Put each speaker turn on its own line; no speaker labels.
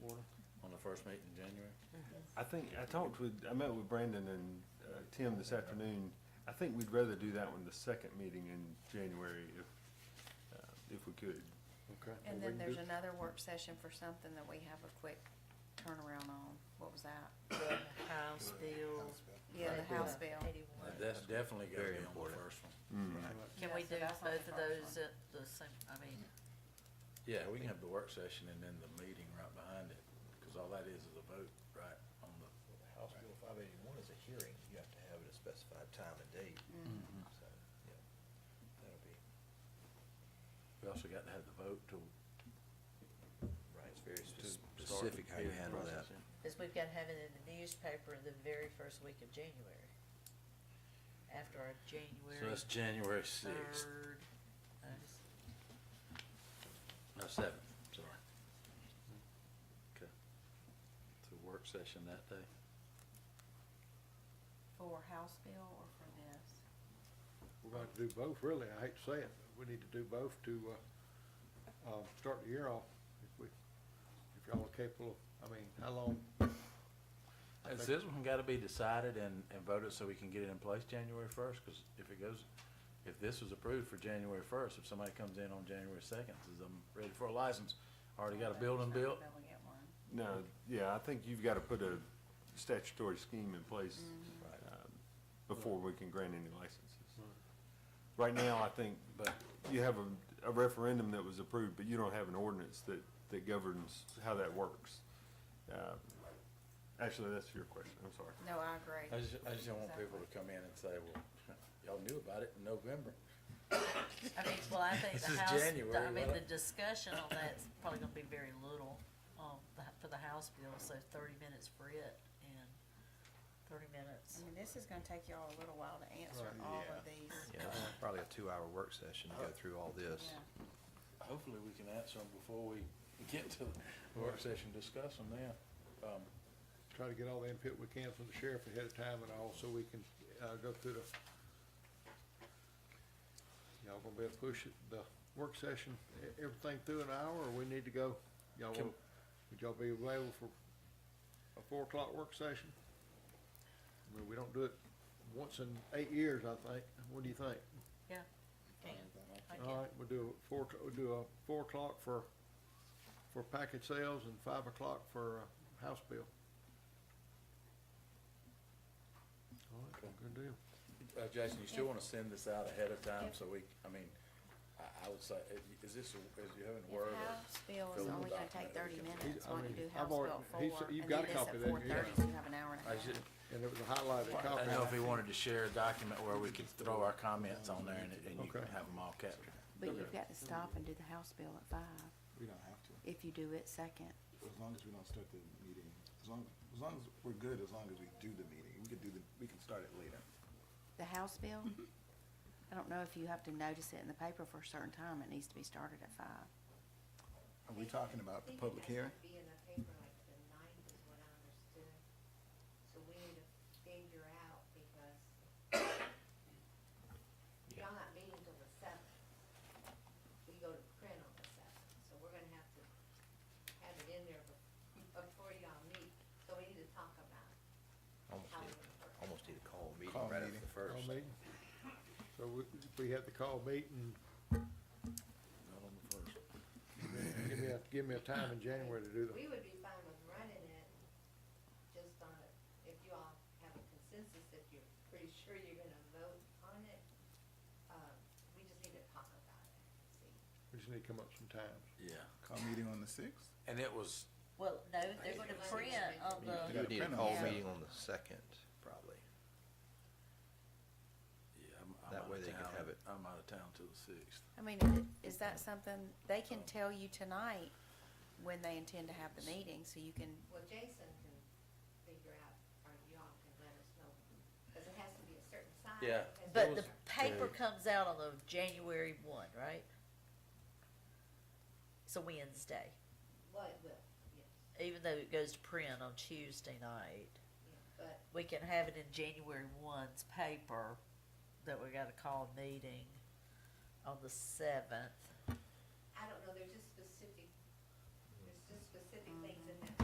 first meeting in January?
I think, I talked with, I met with Brandon and uh, Tim this afternoon. I think we'd rather do that one the second meeting in January if, uh, if we could.
Okay.
And then there's another work session for something that we have a quick turnaround on. What was that?
The House bill.
Yeah, the House bill.
Eighty-one.
That's definitely gotta be
Very
on the
important.
first one.
Mm-hmm.
Yeah,
Can we
so
do
that's on the
both of
first
those at the same, I mean,
Yeah, we can have the work session and then the meeting right behind it, cause all that is is a vote, right, on the,
House Bill five eighty-one is a hearing, you have to have it at a specified time and date,
Mm-hmm.
so, yeah, that'll be,
we also got to have the vote to.
right, it's very
to start the
specific how you
hearing
handle that.
process in.
because we've got to have it in the newspaper the very first week of January. After our
So
January
that's January sixth,
third. notice.
no, seventh, sorry.
Mm-hmm.
Okay. So work session that day?
For House bill or for this?
We're gonna have to do both, really, I hate to say it, but we need to do both to, uh, uh, start the year off, if we, if y'all are capable, I mean, how long? I
Has
think-
this one gotta be decided and, and voted so we can get it in place January first? Cause if it goes, if this was approved for January first, if somebody comes in on January second, says I'm ready for a license, already
Oh,
got a building built,
Not gonna get one.
No, yeah, I think you've got to put a statutory scheme in place um, before we can grant any licenses.
Mm-hmm.
Right now, I think,
but
you have a, a referendum that was approved, but you don't have an ordinance that, that governs how that works. Uh, Actually, that's your question, I'm sorry.
No, I agree.
I just, I just don't want people to come in and say, well, y'all knew about it in November.
I mean, well, I think
This
the
is
House, the- I
January,
mean,
why not?
the discussion on that's probably gonna be very little, um, the- for the House bill, so thirty minutes for it and thirty minutes.
I mean, this is gonna take y'all a little while to answer
Right,
all
yeah.
of these.
Yeah, it's probably a two-hour work session to go through all this.
Yeah.
Hopefully, we can answer them before we get to the work session, discuss them then. Um,
Try to get all the input we can from the sheriff ahead of time and all, so we can, uh, go through the, y'all gonna be able to push it, the work session, e- everything through an hour, or we need to go, y'all,
Can-
will- would y'all be available for a four o'clock work session? I mean, we don't do it once in eight years, I think, what do you think?
Yeah, can, I
All
can.
right, we'll do a four, we'll do a four o'clock for, for package sales and five o'clock for, uh, house bill. All right, good deal.
Uh, Jason, you still wanna send this out ahead of time, so we, I mean, I, I would say, i- is this, a- is you having
If
word or?
House bill is
fill
only
the
gonna
document
take thirty
that we can-
minutes,
I
why don't you
mean, I've
do House
already-
bill at
he's-
four,
you've
and
got a
then this at
copy of that,
four thirty,
yeah.
so you have an hour and a
I
half.
should,
And it was a highlighted
I
copy.
know if we wanted to share a document where we could throw our comments on there and, and you can
Okay.
have them all captured.
But you've got to stop and do the House bill at five,
We don't have to,
if you do it second.
as long as we don't start the meeting, as long, as long as we're good, as long as we do the meeting, we could do the, we can start it later.
The House bill, I don't know if you have to notice it in the paper for a certain time, it needs to be started at five.
Are we talking about the public hearing?
Be in the paper like the ninth is what I understood. So we need to figure out because y'all not meeting till the seventh. We go to print on the seventh, so we're gonna have to have it in there bef- before y'all meet. So we need to talk about
Almost
how
need,
we're gonna work.
almost need a call meeting
Call
right after
meeting.
the first.
Call meeting. So we, if we had the call meeting,
Not on the first.
give me a, give me a time in January to do
We
the,
would be fine with running it, just on it, if you all have a consensus, if you're pretty sure you're gonna vote on it, um, we just need to talk about it, see.
we just need to come up some times.
Yeah,
Call meeting on the sixth?
and it was,
Well, no, they're gonna print on
You
the,
would need a
Yeah.
call
Yeah.
meeting on the second, probably.
yeah, I'm, I'm
That
out
way
of
they can
town.
have it.
I'm out of town till the sixth.
I mean, i- is that something, they can tell you tonight when they intend to have the meeting, so you can,
Well, Jason can figure out, or y'all can let us know, because it has to be a certain size.
Yeah.
it has to
but
be-
the paper comes out on the January one, right? It's a Wednesday,
Well, it will, yes,
even though it goes to print on Tuesday night.
yeah, but
We can have it in January one's paper that we gotta call a meeting on the seventh.
I don't know, there's just specific, there's just specific things